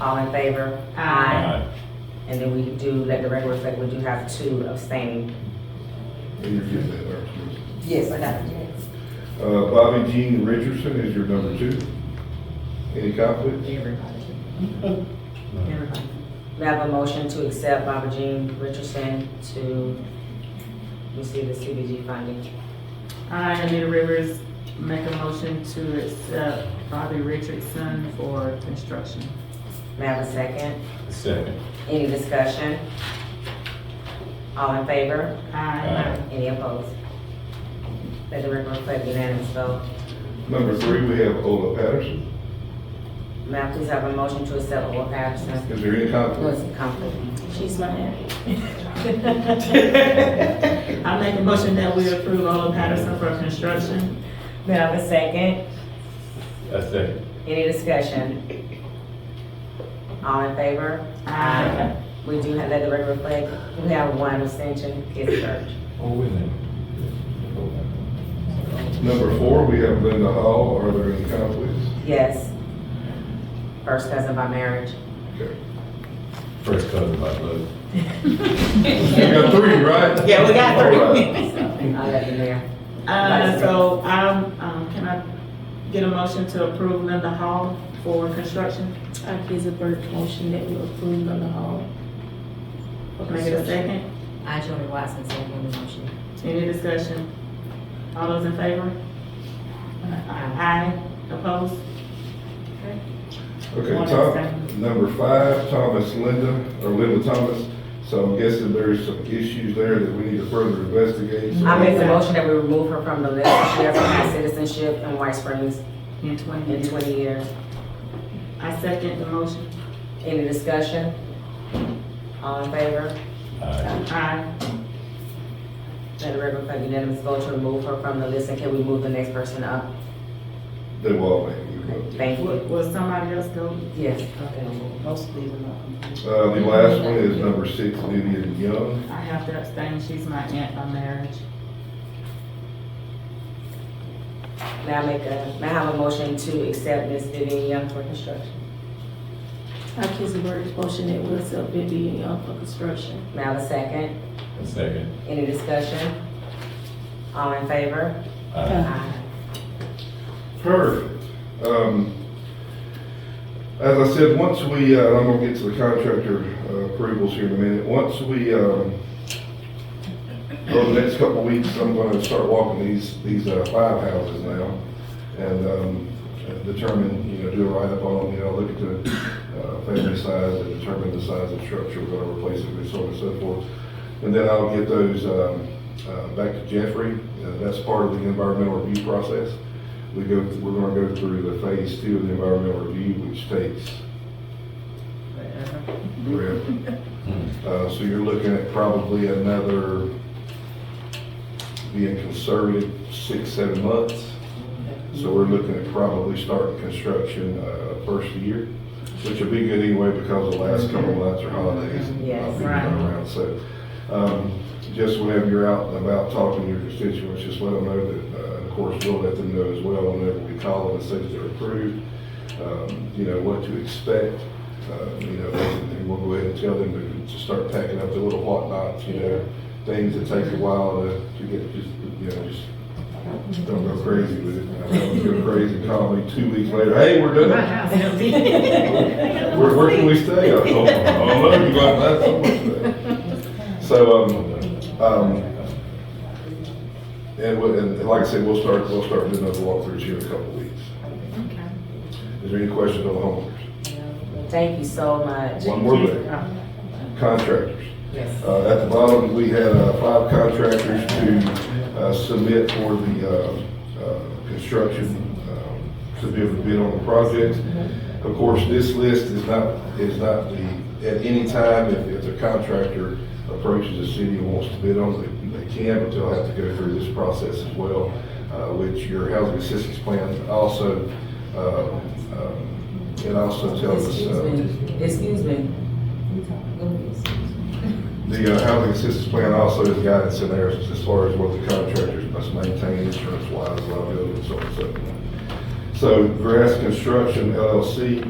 All in favor? Aye. And then we do, let the record reflect, we do have two abstaining. And you get that, Dr. Yes, I got it. Cruz. Uh, Bobby Jean Richardson is your number two. Any conflicts? Everybody. Everybody. We have a motion to accept Barbara Jean Richardson to receive the CBG funding. I, Anita Rivers, make a motion to accept Bobby Richardson for construction. May I have a second? Second. Any discussion? All in favor? Aye. Any opposed? Let the record reflect unanimous vote. Number three, we have Ola Patterson. May I please have a motion to accept Oral Patterson? Is there any What's conflict? the conflict? She's my aunt. I make a motion that we approve Ola Patterson for construction. May I have a second? Uh, A second. Any discussion? All in favor? Aye. We do have, let the record reflect, we have one abstention, Kids Church. Oh, wait a minute. Number four, we have Linda Hall. Are there any conflicts? Yes. First cousin by marriage. Okay. First cousin by blood. You got three, right? Yeah, we got three. All right. I love you, Mayor. Uh, so I'm, um, can I get a motion to approve Linda Hall for construction? I give a bird motion that we approve on the hall. Make it a second. I, Jody Watson, second the motion. Any discussion? All those in favor? Aye. Opposed? Okay, One Tom, abstain. number five, Thomas Linda, or Linda Thomas. So I'm guessing there's some issues there that we need to further investigate. So- I make the motion that we remove her from the list. She has not had citizenship in White Springs In twenty in minutes. twenty years. I second the motion. Any discussion? All in favor? Aye. Aye. Let the record reflect unanimous vote to remove her from the list, and can we move the next person up? They will all make you vote. Thank Will, you. will somebody else go? Yes. Most of these are not. Uh, the last one is number six, Vivian Young. I have to abstain. She's my aunt by marriage. May I make a, may I have a motion to accept Ms. Vivian Young for construction? I give a bird motion that we accept Vivian Young for construction. May I have a second? A second. Any discussion? All in favor? Aye. Aye. Perfect. Um, as I said, once we, uh, I'm gonna get to the contractor uh, approvals here in a minute. Once we, um, over the next couple of weeks, I'm gonna start walking these, these, uh, five houses now and, um, determine, you know, do a write-up on them, you know, look at the, uh, family size and determine the size of the structure we're gonna replace it with, so on and so forth. And then I'll get those, um, uh, back to Jeffrey. Uh, that's part of the environmental review process. We go, we're gonna go through the phase two of the environmental review, which takes forever. hmm. Uh, so you're looking at probably another, being conservative, six, seven months. So we're looking at probably starting construction, uh, first year, which will be good anyway because the last couple of months are holidays. and Yes, I'll be right. around. So, um, just whenever you're out and about talking to your constituents, just let them know that, uh, of course, we'll let them know as well whenever we call them and say that they're approved, um, you know, what to expect. Uh, you know, and we'll go ahead and tell them to, to start packing up the little whatnots, you know, things that take a while to, to get, just, you know, just don't go crazy with it. I know you go crazy, and call me two weeks later, hey, we're done. Where, where can we stay? I told them, oh, no, you got that somewhere. So, um, um, and, we- and like I said, we'll start, we'll start doing those walkthroughs here in a couple of weeks. Is there any questions on the homeowners? Thank you so much. One more thing, contractors. Yes. Uh, at the bottom, we had, uh, five contractors to, uh, submit for the, uh, uh, construction, um, to be able to bid on the projects. Of course, this list is not, is not the, at any time, if, if the contractor approaches the city and wants to bid on it, they can, but they'll have to go through this process as well, uh, which your housing assistance plan also, uh, um, it also tells us, Excuse uh, me, excuse me. The uh, housing assistance plan also has guidance in there as far as what the contractors must maintain insurance wise, liability, and so on and so forth. So Grass Construction LLC